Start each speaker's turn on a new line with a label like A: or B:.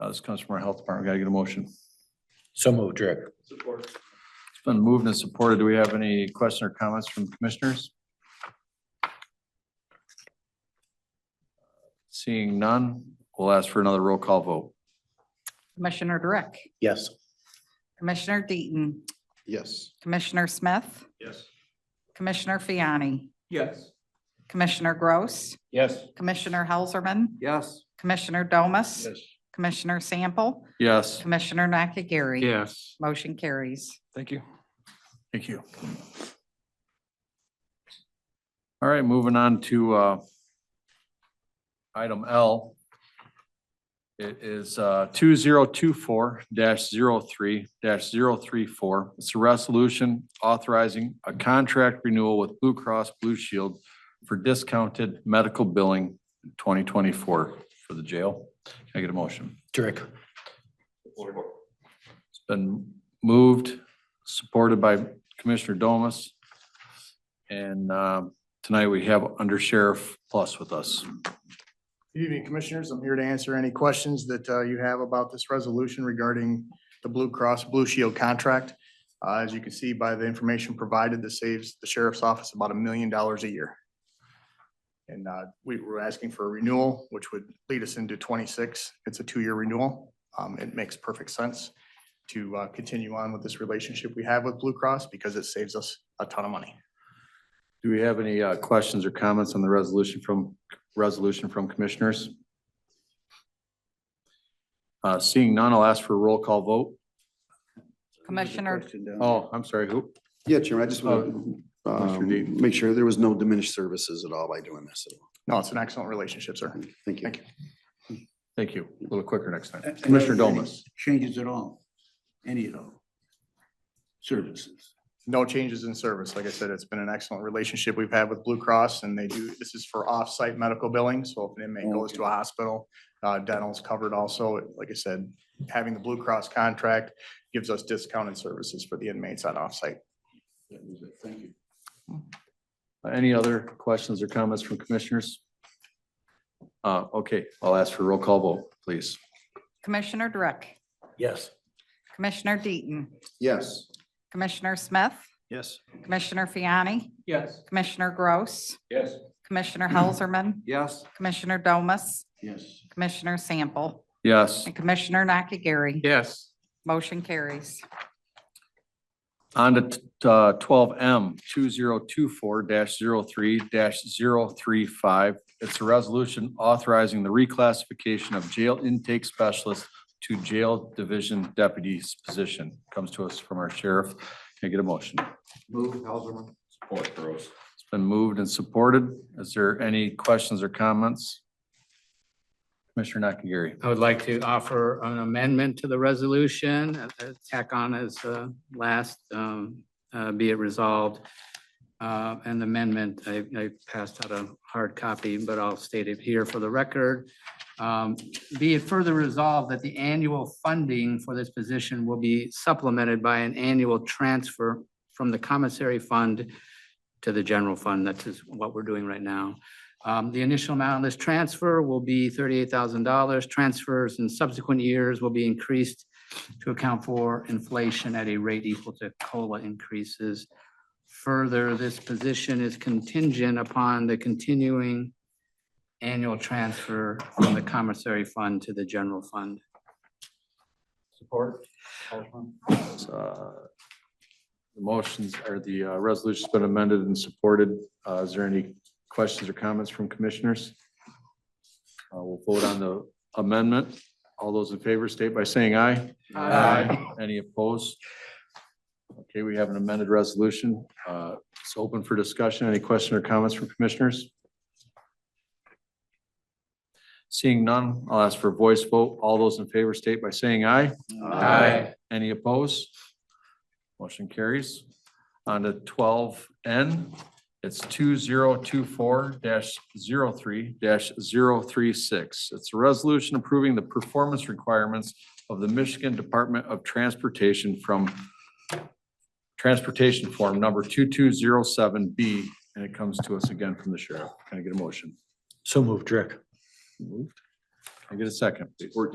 A: Uh, This comes from our health department. We Gotta get a motion.
B: So moved, Rick.
A: Support. It's been moved and supported. Do we have any question or comments from commissioners? Seeing none, we'll ask for another roll call vote.
C: Commissioner Direct,
B: Yes.
C: Commissioner Deaton,
B: Yes.
C: Commissioner Smith,
A: Yes.
C: Commissioner Fiani,
A: Yes.
C: Commissioner Gross,
B: Yes.
C: Commissioner Helserman,
A: Yes.
C: Commissioner Domas, Commissioner Sample,
A: Yes.
C: Commissioner Nakagiri.
D: Yes.
C: Motion carries.
A: Thank you. Thank you. All right, moving on to uh, item L. It is uh, two zero two four 3 34 It's a resolution authorizing a contract renewal with Blue Cross Blue Shield for discounted medical billing twenty twenty-four for the jail. Can I get a motion?
B: Rick.
A: It's been moved, supported by Commissioner Domas. And um, tonight we have Under Sheriff Plus with us.
E: Good evening, Commissioners. I'm here to answer any questions that uh, you have about this resolution regarding the Blue Cross Blue Shield contract. Uh, As you can see by the information provided, this saves the sheriff's office about a million dollars a year. And uh, we were asking for a renewal, which would lead us into twenty-six. It's a two-year renewal. Um, It makes perfect sense to uh, continue on with this relationship we have with Blue Cross because it saves us a ton of money.
A: Do we have any uh, questions or comments on the resolution from, resolution from commissioners? Uh, Seeing none, I'll ask for a roll call vote.
C: Commissioner,
A: Oh, I'm sorry, who?
F: Yeah, Chairman, I just want
A: Commissioner
F: to
A: Deaton.
F: make sure there was no diminished services at all by doing this. at all.
E: No, it's an excellent relationship, sir.
F: Thank you.
E: Thank
D: Uh,
E: you.
A: Thank you. A little quicker next time. Commissioner Domas.
D: Changes at all, any at all. Services.
E: no changes in service. Like I said, it's been an excellent relationship we've had with Blue Cross and they do, this is for off-site medical billing. So if an inmate goes to a hospital, uh, dental's covered also. Like I said, having the Blue Cross contract gives us discounted services for the inmates on off-site.
D: That was it. Thank you.
A: Any other questions or comments from commissioners? Uh, Okay, I'll ask for a roll call vote, please.
C: Commissioner Direct,
B: Yes.
C: Commissioner Deaton,
F: Yes.
C: Commissioner Smith,
A: Yes.
C: Commissioner Fiani,
D: Yes.
C: Commissioner Gross,
D: Yes.
C: Commissioner Helserman,
A: Yes.
C: Commissioner Domas,
D: Yes.
C: Commissioner Sample,
A: Yes.
C: and Commissioner Nakagiri.
D: Yes.
C: Motion carries.
A: On to uh, twelve M, two zero two four 3 35 It's a resolution authorizing the reclassification of jail intake specialist to jail division deputy's position. Comes to us from our sheriff. Can I get a motion?
D: Move, Helserman. Support, Gross.
A: It's been moved and supported. Is there any questions or comments? Commissioner Nakagiri.
G: I would like to offer an amendment to the resolution, uh, uh, tack on as uh, last, um, uh, be it resolved. Uh, An amendment, I I passed out a hard copy, but I'll state it here for the record. Um, Be it further resolved that the annual funding for this position will be supplemented by an annual transfer from the commissary fund to the general fund. That's just what we're doing right now. Um, The initial amount of this transfer will be thirty-eight thousand dollars. Transfers in subsequent years will be increased to account for inflation at a rate equal to COLA increases. Further, this position is contingent upon the continuing annual transfer from the commissary fund to the general fund.
D: Support. Helserman.
A: Uh, The motions or the uh, resolution's been amended and supported. Uh, Is there any questions or comments from commissioners? Uh, We'll vote on the amendment. All those in favor state by saying aye. Any opposed? Okay, we have an amended resolution. Uh, It's open for discussion. Any question or comments from commissioners? Seeing none, I'll ask for a voice vote. All those in favor state by saying aye.
D: uh, Aye.
A: Any opposed? Motion carries. On to twelve N, it's two zero two four 3 36 It's a resolution approving the performance requirements of the Michigan Department of Transportation from Transportation Form Number two two zero seven B, and it comes to us again from the sheriff. Can I get a motion?
B: So moved, Rick.
A: Moved. Can I get a second, please?